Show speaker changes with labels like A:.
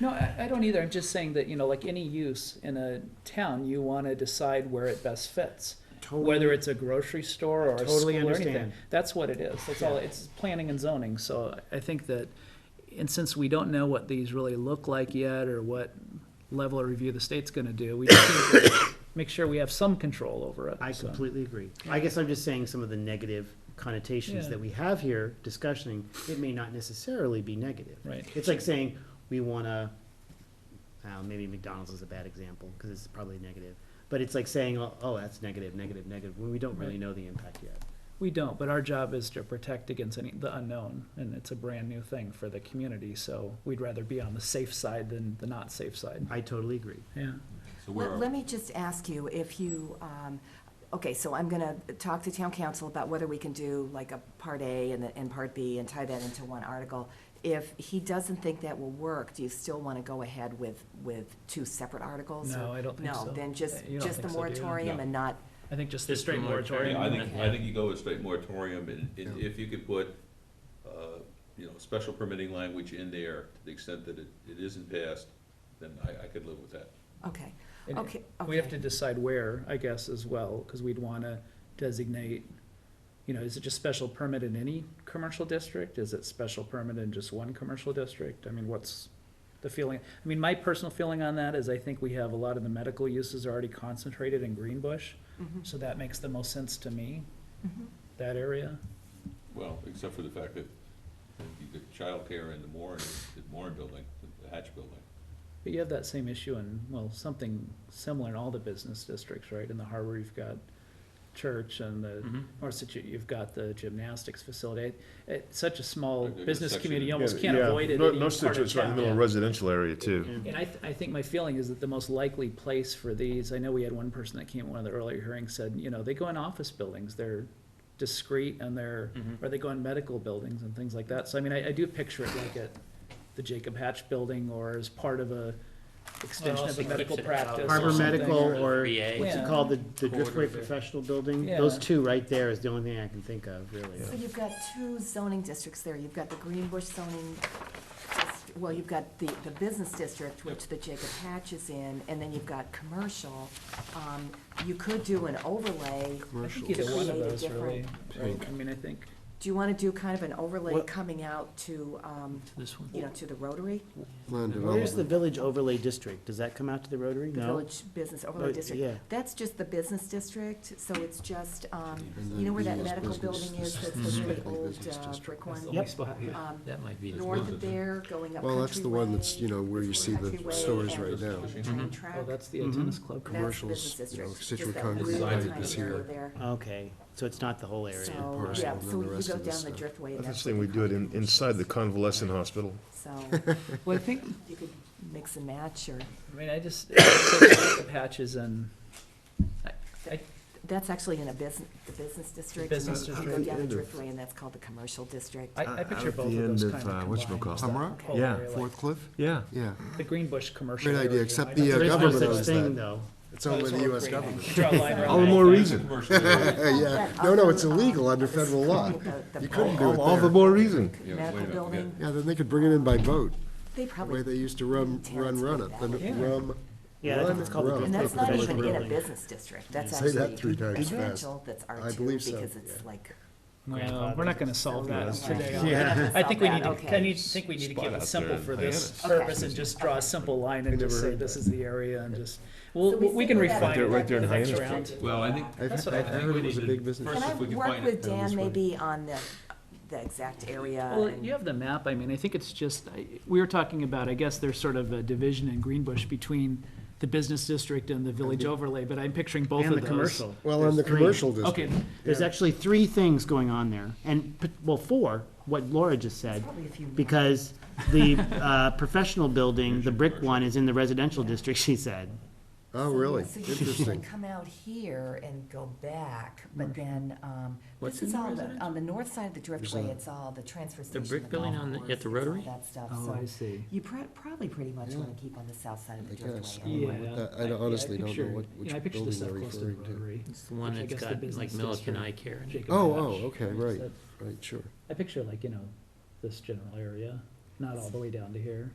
A: No, I, I don't either. I'm just saying that, you know, like any use in a town, you want to decide where it best fits. Whether it's a grocery store or a school
B: Totally
A: or anything.
B: understand.
A: That's what it is. That's all. It's planning and zoning. So I think that, and since we don't know what these really look like yet or what level of review the state's going to do, we just need to make sure we have some control over it.
B: I
A: so.
B: completely agree. I guess I'm just saying some of the negative connotations
A: Yeah.
B: that we have here discussing, it may not necessarily be negative.
A: Right.
B: It's like saying, we wanna, uh, maybe McDonald's is a bad example, cause it's probably negative. But it's like saying, oh, oh, that's negative, negative, negative, when we don't really
A: Right.
B: know the impact yet.
A: We don't, but our job is to protect against any, the unknown, and it's a brand new thing for the community, so we'd rather be on the safe side than the not safe side.
B: I totally agree.
A: Yeah.
C: So where
D: Let
C: are,
D: let me just ask you if you, um, okay, so I'm going to talk to town council about whether we can do like a part A and, the- and part B and tie that into one article. If he doesn't think that will work, do you still want to go ahead with, with two separate articles? or-
A: No, I don't think so.
D: No, then just,
A: You don't
D: just the
A: think so, do you?
D: moratorium
C: No.
D: and not,
A: I think just the
E: Just
A: straight
E: the moratorium.
A: moratorium.
C: Yeah, I think, I
D: Yeah.
C: think you go with straight moratorium, and, and if you could put, uh, you know, special permitting language in there, to the extent that it, it isn't passed, then I, I could live with that.
D: okay,
A: And
D: okay,
A: We have
D: okay.
A: to decide where, I guess, as well, because we'd want to designate, you know, is it just special permit in any commercial district? Is it special permit in just one commercial district? I mean, what's the feeling? I mean, my personal feeling on that is I think we have a lot of the medical uses already concentrated in Greenbush,
D: Mhm,
A: so that makes the most sense to me,
D: mhm.
A: that area.
C: Well, except for the fact that you get childcare in the Warren, the Warren building, the Hatch building.
A: But you have that same issue in, well, something similar in all the business districts, right? In the harbor, you've got church and the,
E: Mhm.
A: North Situ- you've got the gymnastics facility. It's such a small
C: Like, there's a
A: business
C: section
A: community, you
C: in-
A: almost
F: Yeah,
A: can't
F: yeah.
A: avoid it in
F: No- no
A: any part of
F: situ- It's right in the middle of
A: town.
F: residential area too.
B: Yeah.
A: And I, th- I think my feeling is that the most likely place for these, I know we had one person that came at one of the earlier hearings said, you know, they go in office buildings, they're discreet and they're,
E: Mhm.
A: or they go in medical buildings and things like that. So I mean, I, I do picture it like at the Jacob Hatch building or as part of a extension of
E: also
A: a medical
E: keeps it out
A: practice.
E: of
A: or
B: Harbor
A: something,
B: Medical or,
E: VA.
B: what's it
A: Yeah.
B: called, the, the
E: Corridor.
B: Driftway Professional Building?
A: Yeah.
B: Those two right there is the only thing I can think of, really.
D: So you've got two zoning districts there. You've got the Greenbush zoning, dist- well, you've got the, the business district, which the Jacob Hatch is in, and then you've got commercial. Um, You could do an overlay.
A: I think either one of
D: Create a
A: those really,
F: different-
A: right? I mean, I think,
D: Do you want to do kind of an overlay
B: What-
D: coming out to, um,
E: This one.
D: you know, to the Rotary?
B: Where's the Village Overlay District? Does that come out to the Rotary?
D: The
B: No?
D: Village Business Overlay
B: Oh,
D: District?
B: yeah.
D: That's just the business district, so it's just, um,
F: And then
D: you know where that
F: business,
D: medical
F: business,
D: building is,
F: this
D: that's
E: is
D: the really
F: strictly
D: old
F: business
D: uh,
F: district.
D: brick
A: that's the
D: one?
A: only spot, yeah.
D: Um,
E: That might be.
D: North of there, going up
F: Well, that's the one that's, you know, where you see the
D: Countryway
F: stores
D: and
F: right now.
D: the
C: Mhm.
D: Train
A: Oh,
D: track.
A: that's the
B: Mhm.
A: tennis club.
D: That's the business
F: Commercials, you
D: district,
F: know,
D: just
F: Situate
D: that
F: Concrete
D: little
C: Lighted
D: tiny
F: is
D: area
F: here.
D: there.
B: Okay, so it's not the whole area.
D: So,
F: parcel,
D: yeah,
F: and then
D: so
F: the
D: you
F: rest
D: go
F: of it's
D: down the
F: the-
D: driftway. and
F: That's
D: that's
F: the thing
D: where the
F: we do it in,
D: condominiums
F: inside the
D: is.
F: convalescent hospital.
D: So
A: Well, I think,
D: you could mix and match or,
A: I mean, I just, the patches and,
D: that's actually in a business, the business district.
A: business
D: You go
A: district.
D: down the
F: End of-
D: driftway and that's called the commercial district.
A: I, I
G: Uh,
A: picture both of those kind of combined. whole
G: Yeah,
A: area, like
G: Fourth Cliff,
E: Yeah.
G: yeah.
A: The Green Bush commercial.
G: Great
A: area,
G: idea, except
A: I
G: the,
A: don't-
G: uh,
B: There is no
G: government
B: such
G: owns
B: thing,
G: that.
B: though.
G: It's owned by the US government.
A: Draw a line around
G: All the
A: that.
G: more reason.
C: Commercial area.
G: Yeah, no, no, it's illegal under federal law. You couldn't do it All the there. more reason.
C: Yeah, wait a
D: Medical
C: minute, we
D: building,
G: Yeah, then they could bring it in by boat,
D: they
G: the way they
D: probably,
G: used to rum, run, run it, the
A: Yeah.
G: rum.
B: Yeah, I think it's called the
G: Run, run.
D: and that's
B: Driftway
D: not even
B: Professional
D: in a
B: Building.
D: business district. That's
G: Say that
D: actually
G: three times fast.
D: residential, that's R
G: I
D: two
G: believe so,
D: because it's
G: yeah.
D: like.
A: Well, we're not gonna solve that
D: Grandfathered.
A: today.
B: Yeah.
A: I think we need
D: Okay.
A: to, I need, think we need to keep
F: Spot
A: it
F: out
A: simple
F: there in
A: for this
D: Hyannis.
A: purpose and just draw a simple line and
G: never
A: just say
G: heard
A: this
G: that.
A: is the area and just, well,
D: So we
A: we can
D: think about
A: refine
D: that
A: it
F: right there
A: the
F: in
A: next
F: Hyannis.
A: round.
C: Well, I think,
G: I've,
A: That's
G: I've
A: what I think
G: heard
C: we
G: it was a
C: need to-
G: big business.
C: first-
D: And
C: if
D: I've
C: we can
D: worked
C: find it
D: with
G: down this
D: Dan
G: way.
D: maybe on the, the exact area.
A: Well,
D: and-
A: you have the map, I mean, I think it's just, I- we were talking about, I guess there's sort of a division in Greenbush between the business district and the village overlay, but I'm picturing both of
B: And
A: those.
B: the commercial.
G: Well, in the
B: There's three.
G: commercial district.
A: Okay,
B: There's actually three things going on there, and, p- well, four, what Laura just said,
D: Probably a few more.
B: because the uh, professional building, the brick one, is in the residential district, she said.
G: Oh, really?
D: So you usually
G: Interesting.
D: come out here and go back, but then, um,
E: What's
D: this is
E: in the
D: all, the- on the
E: residential?
D: north side of the
G: that?
D: Driftway, it's all the transfer station.
E: brick building
D: golf
E: on the- at
D: course,
E: the
D: it's all
E: Rotary?
D: That stuff,
A: oh,
D: so
A: I see.
D: you pr- probably pretty much
G: Yeah.
D: wanna keep on the south side of the
G: I guess.
D: Driftway.
A: Yeah.
D: anyway.
G: I- I
A: I- yeah,
G: honestly don't know
A: picture-
G: what-
A: yeah,
G: which
A: I picture the
G: building
A: stuff
G: they're
A: close to
G: referring to.
A: Rotary.
E: It's the one
A: Which I
E: that's
A: guess the
E: got like
A: business
E: Milliken
A: district.
E: eye care in it.
A: Jacob
G: Oh,
A: Hatch.
G: oh, okay,
A: It's
G: right,
A: that-
G: right, sure.
A: I picture like, you know, this general area, not all the way down to here.